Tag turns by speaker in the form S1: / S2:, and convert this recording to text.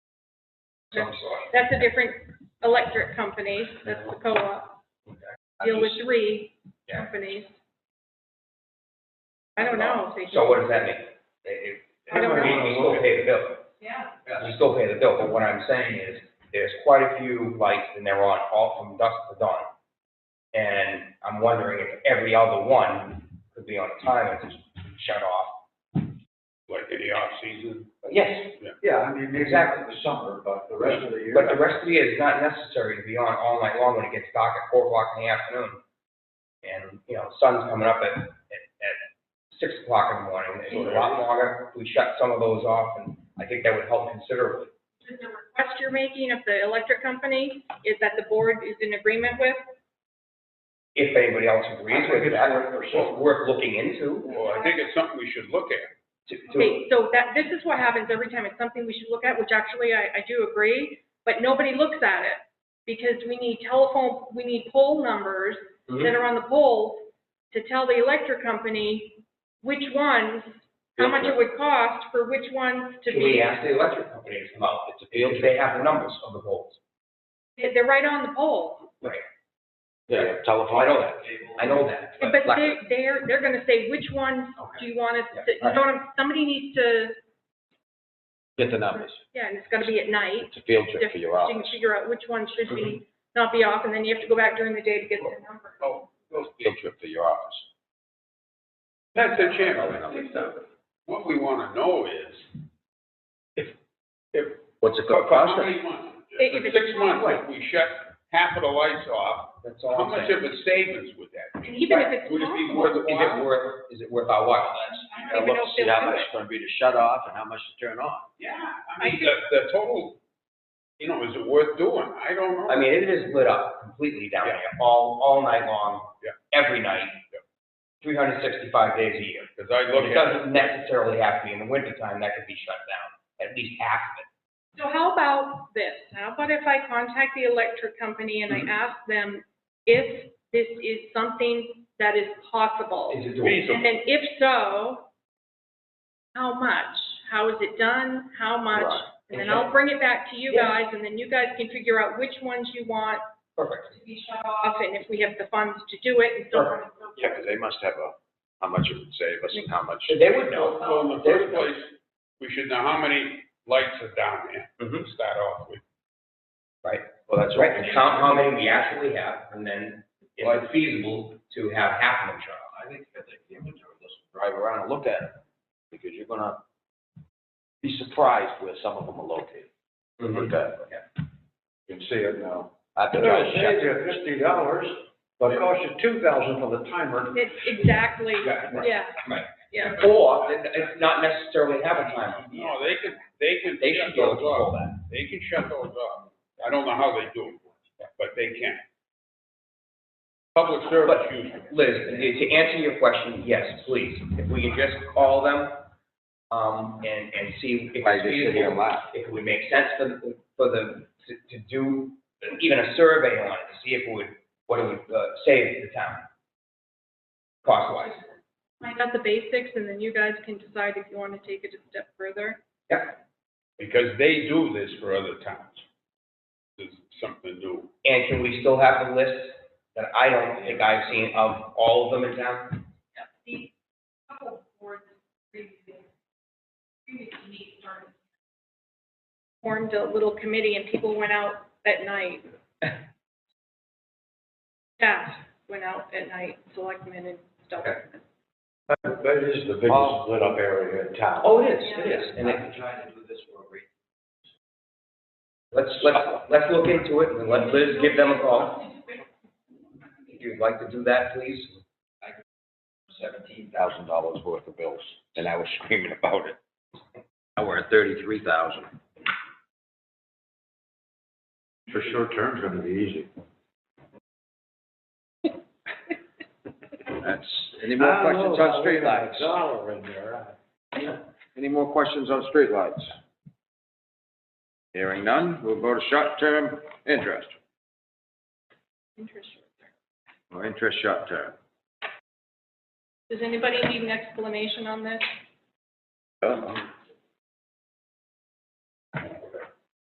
S1: some sort.
S2: That's a different electric company, that's the co-op,
S1: I
S2: deal with
S1: just-
S2: three
S1: Yeah.
S2: companies. I don't know if they
S1: So
S2: should,
S1: what does that mean? If,
S2: I don't
S1: we,
S2: know.
S1: we still pay the bill,
S2: yeah,
S1: we still pay the bill, but what I'm saying is, there's quite a few lights and they're on all from dusk to dawn. And I'm wondering if every other one could be on a timer to shut off.
S3: like in the off-season.
S1: But yes,
S4: Yeah, I mean, maybe not in the summer, but the rest of the year.
S1: but the rest of the year is not necessary to be on all night long when it gets dark at four o'clock in the afternoon. And, you know, sun's coming up at, at, at six o'clock in the morning, it's a lot longer, we shut some of those off, and I think that would help considerably.
S2: Is the request you're making of the electric company is that the board is in agreement with,
S1: if anybody else agrees with that,
S4: Or
S1: it's
S4: so.
S1: worth looking into.
S3: Well, I think it's something we should look at.
S1: to- to-
S2: Okay, so that, this is what happens every time, it's something we should look at, which actually I, I do agree, but nobody looks at it. Because we need telephone, we need poll numbers that are on the polls to tell the electric company which ones, how much it would cost for which ones to
S1: Can we
S2: be.
S1: ask the electric company to come out, It's a field, they have the numbers of the poles.
S2: They- They're right on the poll,
S1: Yeah, telephone. I know that, I know that.
S2: but they, they're, they're gonna say which ones do you want us to, you know, what I'm- somebody needs to,
S5: Get the numbers.
S2: yeah, and it's gonna be at night.
S5: It's a field
S2: So
S5: trip for your
S2: You
S5: office.
S2: can figure out which one should be,
S3: Mm-hmm.
S2: not be off, and then you have to go back during the day to get the number.
S5: Field trip for your office.
S3: That's the chairman. What we wanna know is,
S5: What's it
S3: for for
S5: gonna cost
S3: how
S5: us?
S3: many months?
S2: If
S3: For
S2: it's-
S3: six months, if we shut half of the lights off,
S1: That's
S3: how
S1: all I'm
S3: much
S1: saying.
S3: of a savings would that be?
S2: And even if it's
S3: Would it be
S2: possible,
S3: worth
S1: Is
S3: it?
S1: it worth, is it worth our while?
S2: I
S5: Gotta
S2: don't even
S5: look
S2: know
S5: to
S2: if
S5: see
S2: they'll
S5: how
S2: do
S5: much
S2: it.
S5: it's gonna be to shut off and how much to turn on.
S3: Yeah,
S2: I
S3: I mean,
S2: could-
S3: the, the total, you know, is it worth doing? I don't know.
S1: I mean, it is lit up completely down there, all, all night long,
S3: Yeah.
S1: every night, three hundred sixty-five days a year.
S3: Cause I look
S1: It
S3: at it,
S1: doesn't necessarily have to be in the wintertime, that could be shut down, at least half of it.
S2: So how about this? How about if I contact the electric company
S3: Mm-hmm.
S2: and I ask them if this is something that is possible?
S1: Is it doable?
S2: And
S3: feasible,
S2: then if so, how much? How is it done? How much?
S5: Right.
S2: And then I'll bring it back to you
S1: Yeah.
S2: guys, and then you guys can figure out which ones you want
S1: Perfect.
S2: to be shut off, and if we have the funds to do it, and so on and so forth.
S5: Yeah, 'cause they must have a, how much it would save us and how much.
S1: They would
S3: well,
S1: know.
S3: well, in the first place, we should know how many lights are down there
S1: Mhm.
S3: to start off with.
S5: Well, that's
S1: Right,
S5: right.
S1: and count how many we actually have, and then if it's feasible to have half of them shut off.
S5: I think, I think the inventory, let's drive around and look at it, because you're gonna be surprised where some of them are located. Look at it.
S4: Mm-hmm. You can see it now.
S5: I've been
S4: They're
S5: trying
S4: gonna
S5: to
S4: save
S5: check.
S4: you fifty dollars, but it costs you two thousand for the timer.
S2: It's exactly,
S5: Mm-hmm.
S1: Yeah, right.
S2: yeah,
S1: Right.
S2: yeah.
S1: Or, then it's not necessarily have a timer.
S3: No, they can, they can
S1: They
S3: shut
S1: should be able to
S3: those
S1: control
S3: off.
S1: that.
S3: They can shut those off. I don't know how they do it, but they can. Public service
S1: But-
S3: usually.
S1: Liz, to answer your question, yes, please, if we can just call them, um, and, and see if
S5: Might
S1: it's
S5: just sit here and
S1: feasible.
S5: laugh.
S1: If it would make sense for, the- for the, to, to do even a survey on it, to see if it would, what it would, uh, save the town. Cost wise.
S2: Find out the basics, and then you guys can decide if you want to take it a step further.
S3: Because they do this for other towns. This is something new.
S1: And can we still have the list that I don't think I've seen of all of them in town?
S2: The couple boards previously, previously meet started. Formed a little committee and people went out at night. Staff went out at night, selectmen and stuff.
S1: Okay.
S4: That that is the biggest
S5: Oh.
S4: lit up area in town.
S1: Oh, it is,
S2: Yeah.
S1: it is. And it-
S5: trying to do this for a reason.
S1: let's, let's, let's look into it and let Liz give them a call. If you'd like to do that, please.
S5: seventeen thousand dollars worth of bills, and I was screaming about it. Now we're at thirty-three thousand.
S4: For short term, it's gonna be easy.
S5: That's, any more questions on streetlights?
S4: Dollar in there.
S5: Any more questions on streetlights? Hearing none, we'll go to short-term interest,
S2: Interest rate.
S5: or interest short-term.
S2: Does anybody need an explanation on this?
S5: Uh,